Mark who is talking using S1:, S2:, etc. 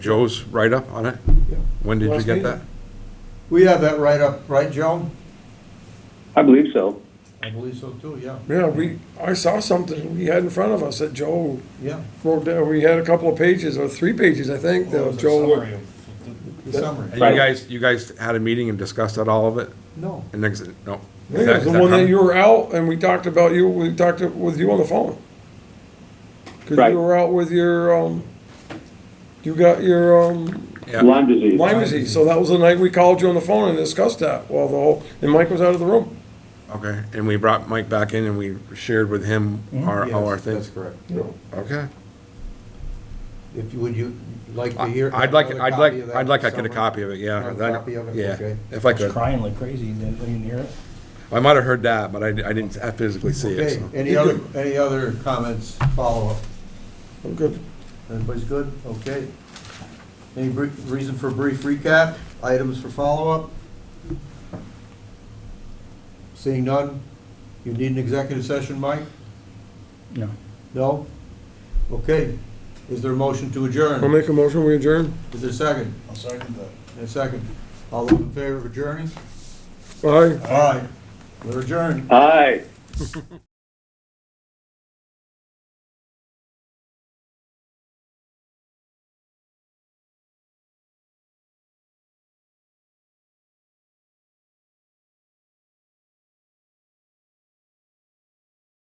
S1: Joe's write-up on it?
S2: Yeah.
S1: When did you
S2: Last
S1: get
S2: meeting.
S1: that?
S2: We have that right up, right, Joe?
S3: I believe so.
S2: I believe so too, yeah,
S4: Yeah, we, I saw something we had in front of us that Joe
S2: yeah.
S4: wrote down, we had a couple of pages, or three pages, I think,
S5: Well,
S4: that
S5: it's a
S4: Joe.
S2: Oh,
S5: summary of
S2: The
S1: And
S4: That-
S2: summary.
S1: you
S3: Right.
S1: guys, you guys had a meeting and discussed that, all of it?
S2: No,
S1: And next, no.
S4: I think it was the one that you were out, and we talked about you, we talked with you on the phone. Cause
S3: Right.
S4: you were out with your, um, you got your, um,
S1: Yeah,
S3: Lyme disease.
S4: Lyme disease, so that was the night we called you on the phone and discussed that, while the whole, and Mike was out of the room.
S1: okay. And we brought Mike back in and we shared with him our,
S2: Mm-hmm. yes,
S1: all our
S2: that's
S1: things.
S2: correct.
S1: Okay.
S2: If you, would you like to hear?
S1: I'd like,
S2: another
S1: I'd
S2: copy of
S1: like,
S2: that
S1: I'd like I could
S2: summary?
S1: have copy of it, yeah.
S2: Another
S1: That-
S2: copy of it?
S1: Yeah,
S2: Okay.
S1: if I
S5: I was
S1: could.
S5: crying like crazy, you didn't, you didn't hear it?
S1: I might have heard that, but I, I didn't physically see it,
S2: Okay,
S1: so.
S2: any other, any other comments, follow-up?
S4: I'm good.
S2: Everybody's good? Okay. Any br- reason for brief recap? Items for follow-up? Seeing none? You need an executive session, Mike?
S5: No.
S2: No? Okay. Is there a motion to
S4: I'll
S2: adjourn?
S4: make a motion, we adjourn.
S2: Is there a second?
S5: I'll second that.
S2: A second. All those in favor of adjourning?
S4: Bye.
S2: All right. We're adjourned.
S3: Aye.